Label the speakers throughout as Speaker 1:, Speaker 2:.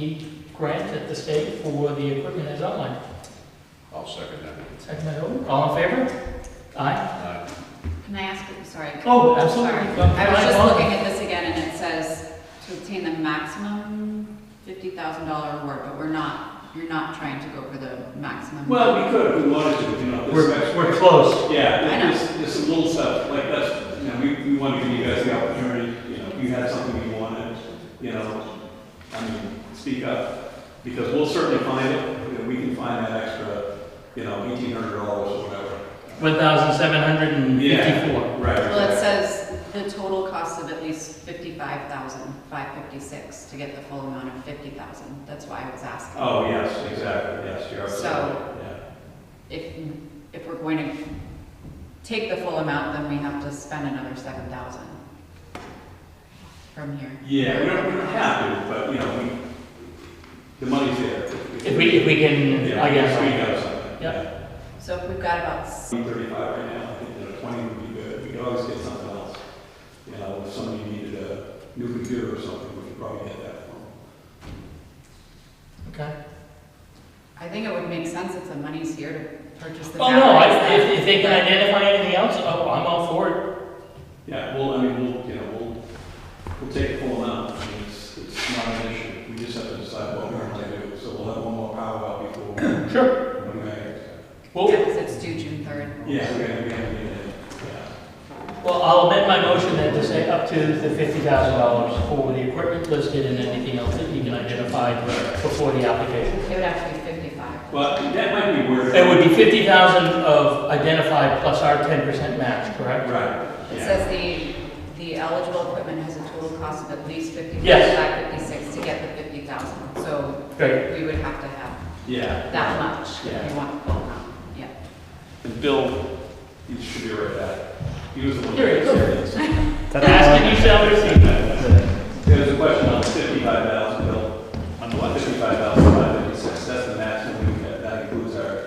Speaker 1: the grant at the state for the equipment as outlined.
Speaker 2: I'll second that.
Speaker 1: Second by Hilton, all in favor? Aye.
Speaker 2: Aye.
Speaker 3: Can I ask, I'm sorry.
Speaker 1: Oh, absolutely.
Speaker 3: Sorry.
Speaker 1: Go-
Speaker 3: I was just
Speaker 1: go on.
Speaker 3: looking at this again, and it says to obtain the maximum fifty thousand dollar award, but we're not, you're not trying to go for the maximum.
Speaker 4: Well, we could if we wanted to, you know, this
Speaker 1: We're, we're close.
Speaker 4: Yeah,
Speaker 3: I know.
Speaker 4: there's, there's some little stuff, like that's, you know, we, we want to give you guys the opportunity, you know, if you had something you wanted, you know, I mean, speak up, because we'll certainly find it, you know, we can find that extra, you know, eighteen hundred dollars or whatever.
Speaker 1: One thousand seven hundred and fifty-four.
Speaker 4: Right.
Speaker 3: Well, it says the total cost of at least fifty-five thousand, five fifty-six, to get the full amount of fifty thousand. That's why I was asking.
Speaker 4: Oh, yes, exactly, yes, you're absolutely,
Speaker 3: So-
Speaker 4: right, yeah.
Speaker 3: If, if we're going to take the full amount, then we have to spend another seven thousand from here.
Speaker 4: Yeah, we don't, we don't have to, but, you know, we, the money's there.
Speaker 1: If we, if we can,
Speaker 4: Yeah,
Speaker 1: I
Speaker 4: We
Speaker 1: guess.
Speaker 4: got
Speaker 1: Yep.
Speaker 4: something, yeah.
Speaker 3: So if we've got about, s-
Speaker 4: 35 right now, I think that a 20 would be good, we could always get something else. You know, if somebody needed a new computer or something, we could probably get that for them.
Speaker 1: Okay.
Speaker 3: I think it would make sense if the money's here to purchase the
Speaker 1: Oh, no,
Speaker 3: batteries.
Speaker 1: I-
Speaker 3: then.
Speaker 1: if, if they can identify anything else, oh, I'm all for it.
Speaker 4: Yeah, well, I mean, we'll, you know, we'll, we'll take the full amount, I mean, it's, it's not an issue, we just have to decide what we're going to do, so we'll have one more powwow before. we-
Speaker 1: Sure.
Speaker 4: Okay.
Speaker 1: Well,
Speaker 3: Yeah, 'cause it's due June third.
Speaker 4: Yeah, we're gonna, we're gonna need it, yeah.
Speaker 1: well, I'll amend my motion then to say up to the fifty thousand dollars for the equipment listed and anything else that you can identify before the application.
Speaker 3: It would have to be fifty-five.
Speaker 4: But that might be worth.
Speaker 1: It would be fifty thousand of identified plus our ten percent match, correct?
Speaker 4: Right,
Speaker 3: It
Speaker 4: yeah,
Speaker 3: says the, the eligible equipment has a total cost of at least fifty-five,
Speaker 1: Yes.
Speaker 3: five fifty-six to get the fifty thousand. So
Speaker 1: Great.
Speaker 3: we would have to have
Speaker 4: yeah.
Speaker 3: that much if
Speaker 4: Yeah.
Speaker 3: you want the full amount, yeah.
Speaker 4: And Bill, you should be right back. He was the one.
Speaker 1: Here he
Speaker 4: is.
Speaker 1: Ask and you shall receive.
Speaker 4: There's a question on fifty-five thousand, Bill, on the one fifty-five thousand, five fifty-six, that's the maximum, we get. that includes
Speaker 5: uh,
Speaker 4: our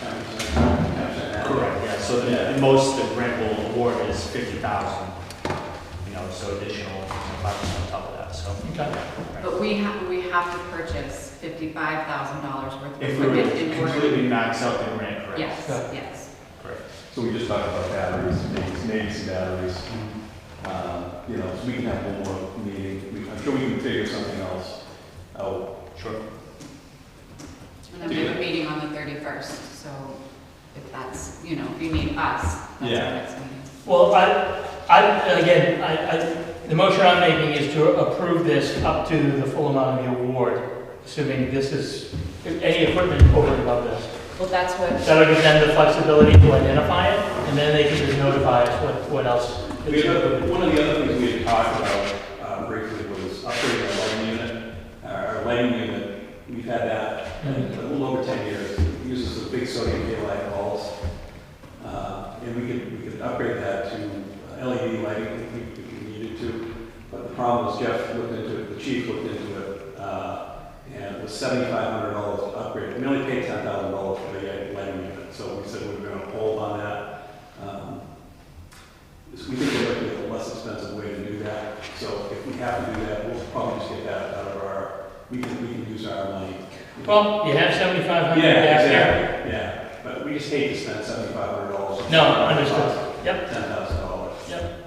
Speaker 4: ten percent, ten percent.
Speaker 6: Correct, yeah, so the, the most the grant will award is fifty thousand, you know, so additional five percent on top of that, so.
Speaker 1: Okay.
Speaker 3: But we have, we have to purchase fifty-five thousand dollars worth of
Speaker 6: If we were
Speaker 3: equipment in
Speaker 6: to
Speaker 3: order.
Speaker 6: completely max out the grant, correct?
Speaker 3: Yes,
Speaker 1: Yeah.
Speaker 3: yes.
Speaker 6: Correct.
Speaker 5: So we just talked about batteries, maybe, maybe some batteries. Um, You know, so we can have one more meeting, We- I'm sure we can figure something else out.
Speaker 6: Sure.
Speaker 3: And then we have a meeting on the thirty-first, so if that's, you know, if you need us, that's our
Speaker 4: Yeah.
Speaker 3: next meeting.
Speaker 1: Well, I, I, and again, I, I, the motion I'm making is to approve this up to the full amount of the award, assuming this is, any equipment over and above this.
Speaker 3: Well, that's what
Speaker 1: That'll give them the flexibility to identify it, and then they can just notify us what, what else.
Speaker 4: We had, one of the other things we had talked about uh, briefly was upgrading our lighting unit, our our lighting unit, we've had that a little over ten years, It uses the big sodium halide bulbs. Uh, And we could, we could upgrade that to LED lighting if we, if we needed to, but the problem is Jeff looked into it, the chief looked into it, uh, and it was seventy-five hundred dollars to upgrade, we only paid ten thousand dollars for the lighting unit, so we said we were gonna hold on that. Um, is we think there might be a less expensive way to do that, so if we have to do that, we'll probably just get that out of our, we can, we can use our money.
Speaker 1: Well, you have seventy-five
Speaker 4: Yeah,
Speaker 1: hundred back there.
Speaker 4: exactly, yeah, but we just hate to spend seventy-five hundred dollars.
Speaker 1: No, understood. Yep,
Speaker 4: Ten thousand dollars.
Speaker 1: yep.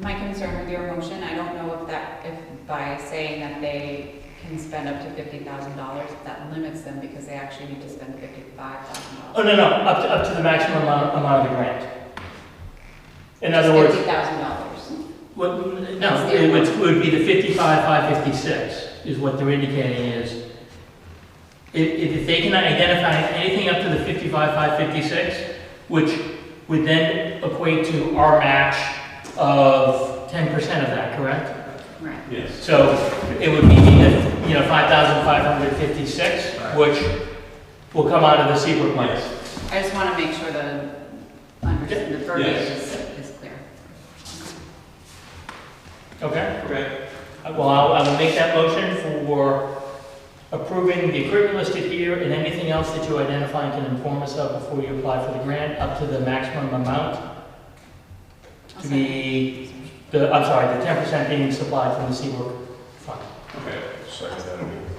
Speaker 3: My concern with your motion, I don't know if that, if by saying that they can spend up to fifty thousand dollars, that limits them because they actually need to spend fifty-five thousand
Speaker 1: Oh,
Speaker 3: dollars.
Speaker 1: no, no, up to, up to the maximum amount, amount of the grant. In other words,
Speaker 3: Fifty thousand dollars.
Speaker 1: What, no, it would, would be the fifty-five, five fifty-six, is what they're indicating is. If, if they can identify anything up to the fifty-five, five fifty-six, which would then equate to our match of ten percent of that, correct?
Speaker 3: Right.
Speaker 4: Yes.
Speaker 1: So it would be, the, you know, five thousand five hundred fifty-six, which will come out of the Seabrook money.
Speaker 4: Yes.
Speaker 3: I just want to make sure the, under- the verbiage is, is clear.
Speaker 1: Okay?
Speaker 4: Okay.
Speaker 1: Well, I'll- I will make that motion for approving the equipment listed here and anything else that you identify and can inform us of before you apply for the grant, up to the maximum amount
Speaker 3: I'll
Speaker 1: to
Speaker 3: second.
Speaker 1: be, the, I'm sorry, the ten percent being supplied from the Seabrook Fund.
Speaker 4: Okay.
Speaker 2: Second that.